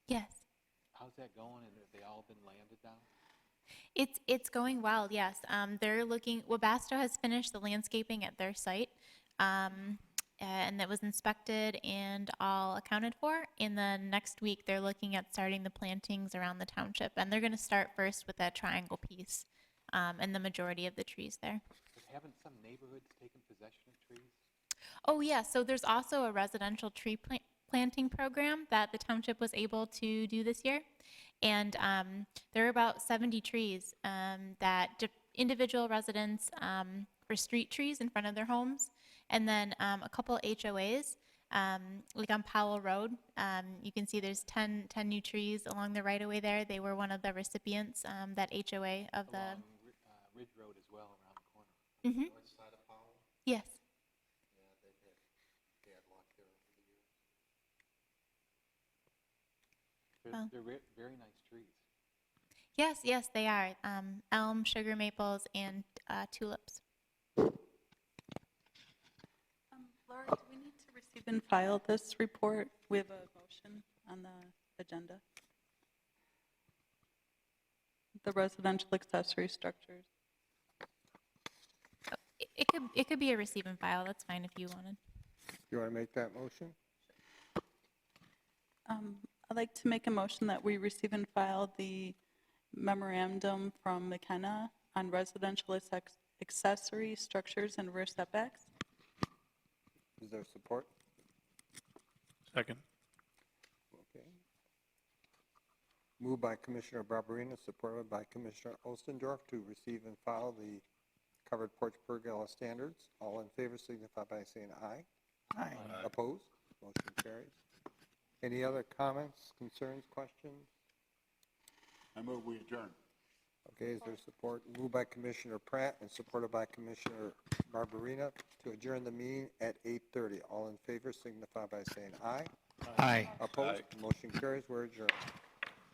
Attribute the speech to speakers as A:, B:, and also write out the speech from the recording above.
A: that going and have they all been landed now?
B: It's, it's going well, yes. Um, they're looking, Webasto has finished the landscaping at their site, um, and that was inspected and all accounted for. And then next week, they're looking at starting the plantings around the township, and they're gonna start first with that triangle piece, um, and the majority of the trees there.
A: But haven't some neighborhoods taken possession of trees?
B: Oh, yeah, so there's also a residential tree plant, planting program that the township was able to do this year. And um, there are about 70 trees um, that di- individual residents um, for street trees in front of their homes. And then um, a couple HOAs, um, like on Powell Road, um, you can see there's 10, 10 new trees along the right of way there. They were one of the recipients, um, that HOA of the,
A: Along Ri- uh, Ridge Road as well, around the corner.
B: Mhm. yes.
A: They're,
B: Wow.
A: they're re- very nice trees.
B: Yes, yes, they are. Um, elm, sugar maples, and uh, tulips.
C: Um, Laura, do we need to receive and file this report? We have a motion on the agenda. The residential accessory structures.
B: It- It could, it could be a receive and file, that's fine if you wanted.
D: You want to make that motion?
C: Um, I'd like to make a motion that we receive and file the memorandum from McKenna on residential accex- accessory structures and rear setbacks.
D: Is there support?
E: Second.
D: Okay. Moved by Commissioner Barberina, supported by Commissioner Ostendorf to receive and file the covered porch pergola standards. All in favor signify by saying aye. Aye. Opposed? Motion carries. Any other comments, concerns, questions?
F: I move we adjourn.
D: Okay, is there support? Moved by Commissioner Pratt and supported by Commissioner Barberina to adjourn the meeting at 8:30. All in favor signify by saying aye.
E: Aye.
D: Opposed? Motion carries. We're adjourned.